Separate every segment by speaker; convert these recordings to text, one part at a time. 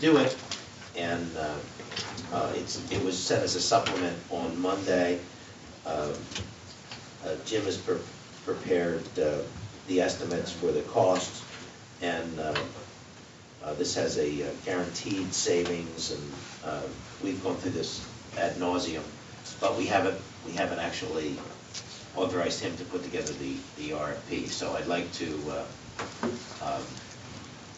Speaker 1: do it, and uh, uh, it's, it was sent as a supplement on Monday. Um, uh, Jim has pre- prepared uh, the estimates for the costs, and uh, uh, this has a uh, guaranteed savings, and uh, we've gone through this ad nauseum, but we haven't, we haven't actually authorized him to put together the, the RFP. So I'd like to uh, um,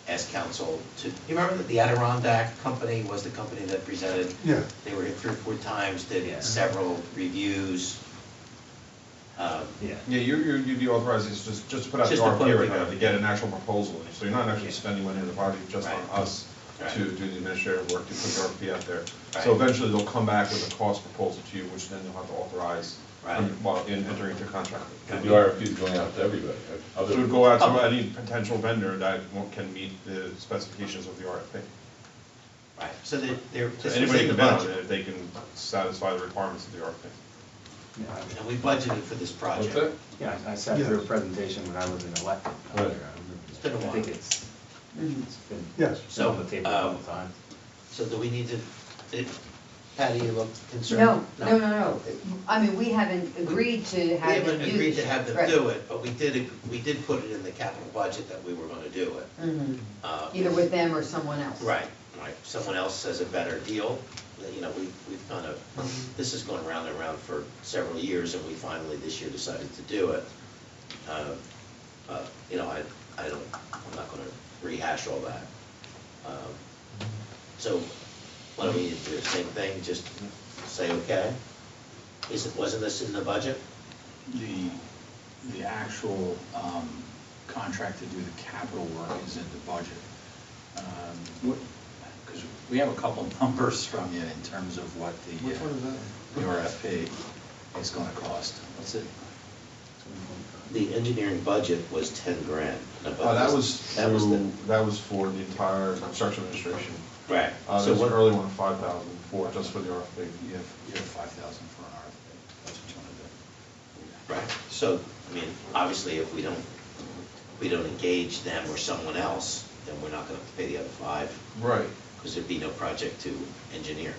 Speaker 1: ask council to, you remember that the Adirondack Company was the company that presented?
Speaker 2: Yeah.
Speaker 1: They were here three or four times, did several reviews. Um,
Speaker 3: Yeah.
Speaker 4: Yeah, you, you- you'd be authorized to just, just put out the
Speaker 1: Just to put
Speaker 4: RFP
Speaker 1: it
Speaker 4: right now
Speaker 1: together.
Speaker 4: to get an actual proposal, in. so you're not actually
Speaker 1: Yeah.
Speaker 4: spending money on the project, just on
Speaker 1: Right.
Speaker 4: us
Speaker 1: Right.
Speaker 4: to do the administrative work, to put the RFP out there.
Speaker 1: Right.
Speaker 4: So eventually they'll come back with a cost proposal to you, which then you'll have to authorize
Speaker 1: Right.
Speaker 4: while in entering into contract.
Speaker 1: Right.
Speaker 3: The RFP is going out to everybody. right?
Speaker 4: So it
Speaker 3: Other-
Speaker 4: would go out
Speaker 1: Oh.
Speaker 4: to any potential vendor that won't- can meet the specifications of the RFP.
Speaker 1: Right, so they they're.
Speaker 4: So
Speaker 1: this was in
Speaker 4: anybody
Speaker 1: the
Speaker 4: can bid on
Speaker 1: budget.
Speaker 4: it if they can satisfy the requirements of the RFP.
Speaker 1: And we budgeted for this
Speaker 3: What's
Speaker 1: project.
Speaker 3: that?
Speaker 5: Yeah, I sat through a presentation when I was an elected.
Speaker 3: Right.
Speaker 5: I remember.
Speaker 1: It's been a
Speaker 5: I
Speaker 1: while.
Speaker 5: think it's, it's been.
Speaker 2: Yes.
Speaker 5: it's been on the table a couple
Speaker 1: So, um,
Speaker 5: times.
Speaker 1: So do we need to, did- Patty, you look
Speaker 6: No,
Speaker 1: concerned?
Speaker 6: no, no, no. I mean, we haven't agreed to
Speaker 1: We
Speaker 6: have them
Speaker 1: haven't
Speaker 6: do this.
Speaker 1: agreed to have them do it, but we did, ag- we did put it in the capital budget that we were gonna do it.
Speaker 6: hmm
Speaker 1: Uh,
Speaker 6: either with them or someone else.
Speaker 1: Right, right, someone else has a better deal, that, you know, we, we've kind of, this has gone round and round for several years, and we finally this year decided to do it. Uh, uh, You know, I, I don't, I'm not gonna rehash all that. Um, So, why don't we do the same thing, just say, okay? Is it, wasn't this in the budget?
Speaker 7: The, the actual um, contract to do the capital work is in the budget. Um, Because we have a couple numbers from you in terms of what the. uh,
Speaker 4: Which one is that?
Speaker 7: The RFP is going to cost. What's it?
Speaker 1: The engineering budget was ten grand. and above
Speaker 4: Uh, that
Speaker 1: this-
Speaker 4: was
Speaker 1: That was the,
Speaker 4: through, that was for the entire construction administration.
Speaker 1: right.
Speaker 4: Uh,
Speaker 1: So
Speaker 4: there's
Speaker 1: what-
Speaker 4: an early one, five thousand, for, just for the RFP.
Speaker 7: You have, you have 5,000 for an RFP. That's what you want to do.
Speaker 1: Right, so, I mean, obviously, if we don't, if we don't engage them or someone else, then we're not gonna pay the other five,
Speaker 4: Right.
Speaker 1: because there'd be no project to engineer.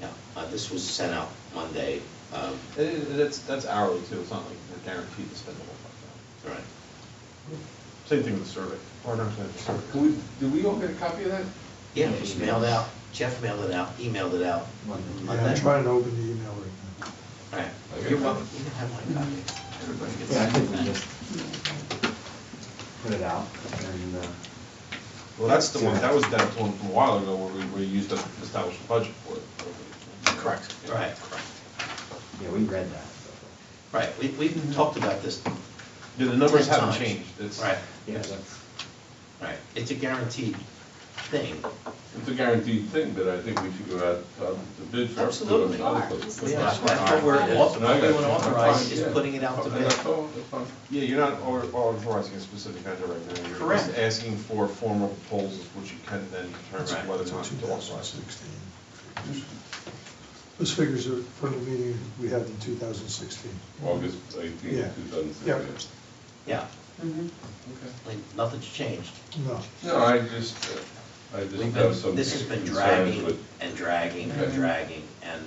Speaker 1: Yeah, uh, this was sent out Monday, um,
Speaker 4: It- it- That's, that's hourly too, it's not like we're guaranteed to spend the whole five
Speaker 1: all right.
Speaker 4: thousand. Same thing with the survey.
Speaker 1: Oh,
Speaker 4: Or not the survey.
Speaker 3: Can we- Did we all get a copy of that?
Speaker 1: Yeah, it was mailed out, Jeff mailed it out, emailed it out.
Speaker 5: Monday.
Speaker 2: Yeah, I'm trying to open the email right
Speaker 1: All right,
Speaker 3: Okay.
Speaker 1: you're welcome, you can have my copy.
Speaker 7: Everybody gets
Speaker 5: Yeah, I
Speaker 7: that.
Speaker 5: think we just put it out and, uh,
Speaker 4: Well, that's the one, that was that one from a while ago where we, we used to establish a budget for it.
Speaker 7: Correct.
Speaker 1: Right.
Speaker 7: Correct.
Speaker 5: yeah, we read that.
Speaker 1: Right, we, we've talked about this
Speaker 4: Yeah, the numbers
Speaker 1: Ten
Speaker 4: haven't
Speaker 1: times.
Speaker 4: changed, it's,
Speaker 1: Right.
Speaker 5: Yeah, that's.
Speaker 1: Right, it's a guaranteed thing.
Speaker 3: It's a guaranteed thing, but I think we should go out uh, to bid for.
Speaker 1: Absolutely.
Speaker 6: Yeah.
Speaker 1: That's what we're, what
Speaker 3: And I
Speaker 1: we
Speaker 3: got
Speaker 1: want to
Speaker 3: you.
Speaker 1: authorize is
Speaker 3: Yeah.
Speaker 1: putting it out to
Speaker 3: And that's
Speaker 1: bid.
Speaker 3: all, Oh, that's fine.
Speaker 4: yeah, you're not au- authorizing a specific vendor right now. You're
Speaker 1: Correct.
Speaker 4: just asking for formal proposals, which you can then
Speaker 1: Right.
Speaker 4: determine whether or
Speaker 2: now.
Speaker 4: not
Speaker 2: Two
Speaker 4: to
Speaker 2: thousand
Speaker 4: authorize.
Speaker 2: sixteen. Those figures are from the meeting we had in two thousand sixteen.
Speaker 3: August eighteenth, two thousand
Speaker 2: Yeah.
Speaker 3: sixteen.
Speaker 1: Yeah,
Speaker 6: Mhm.
Speaker 1: like, nothing's changed.
Speaker 2: No.
Speaker 3: No, I just, uh, I just
Speaker 1: We've
Speaker 3: have
Speaker 1: been,
Speaker 3: some.
Speaker 1: this has been
Speaker 3: concerns
Speaker 1: dragging
Speaker 3: with-
Speaker 1: and dragging and
Speaker 3: Okay.
Speaker 1: dragging, and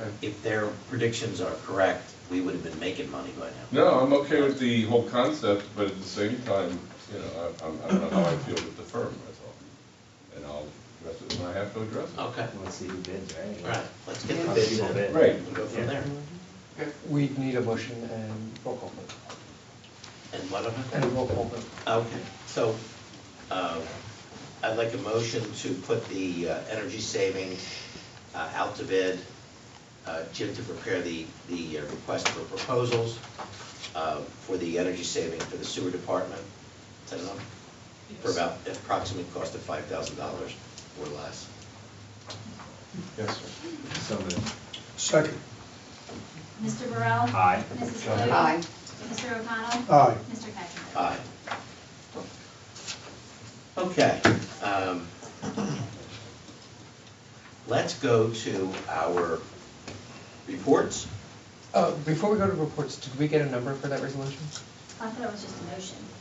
Speaker 3: Okay.
Speaker 1: if their predictions are correct, we would have been making money by now.
Speaker 3: No, I'm okay with the whole concept, but at the same time, you know, I, I'm- I don't know how I feel with the firm, that's all. And I'll address it when I have to address it.
Speaker 1: Okay,
Speaker 5: Let's see who bids, right?
Speaker 1: all right, let's get the
Speaker 5: How
Speaker 1: bids
Speaker 5: people
Speaker 1: in.
Speaker 5: bid.
Speaker 3: Right.
Speaker 1: We'll go from there.
Speaker 8: We need a motion and roll call vote.
Speaker 1: And what
Speaker 8: And a
Speaker 1: other?
Speaker 8: roll call vote.
Speaker 1: Okay, so, uh, I'd like a motion to put the uh, energy saving uh, out to bid, uh, Jim to prepare the, the uh, request for proposals uh, for the energy saving for the sewer department, is that enough? For about approximate cost of five thousand dollars or less.
Speaker 4: Yes, sir.
Speaker 5: So moved.
Speaker 2: Second,
Speaker 9: Mr. Burrell?
Speaker 5: Aye.
Speaker 9: Mrs. Cloddy?
Speaker 6: Aye.
Speaker 9: Mr. O'Connell?
Speaker 2: Aye.
Speaker 9: Mr. Cattrick?
Speaker 1: Aye. Okay. um, Let's go to our reports.
Speaker 8: Uh, Before we go to reports, did we get a number for that resolution?
Speaker 9: I thought it was just a motion.